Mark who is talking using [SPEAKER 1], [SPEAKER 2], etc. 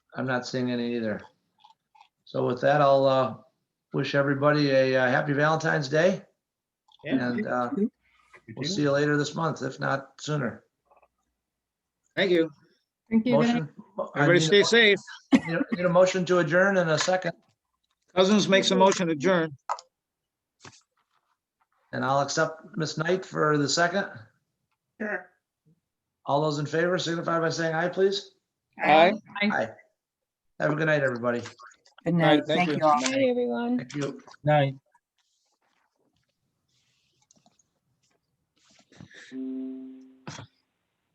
[SPEAKER 1] I'm not seeing any either. So with that, I'll uh, wish everybody a uh, happy Valentine's Day and uh, we'll see you later this month, if not sooner.
[SPEAKER 2] Thank you.
[SPEAKER 3] Thank you. guys.
[SPEAKER 1] Motion. I
[SPEAKER 2] Everybody
[SPEAKER 1] need a-
[SPEAKER 2] stay safe.
[SPEAKER 1] need a- Need a motion to adjourn in a second,
[SPEAKER 2] Cousins makes a motion to adjourn.
[SPEAKER 1] and I'll accept Miss Knight for the second.
[SPEAKER 4] Sure.
[SPEAKER 1] All those in favor signify by saying aye, please.
[SPEAKER 2] Aye.
[SPEAKER 1] Have a good night, everybody.
[SPEAKER 4] Good
[SPEAKER 2] All right,
[SPEAKER 4] night. Thank
[SPEAKER 2] thank you.
[SPEAKER 4] you all.
[SPEAKER 5] Hi, everyone.
[SPEAKER 1] Thank you.
[SPEAKER 2] Night.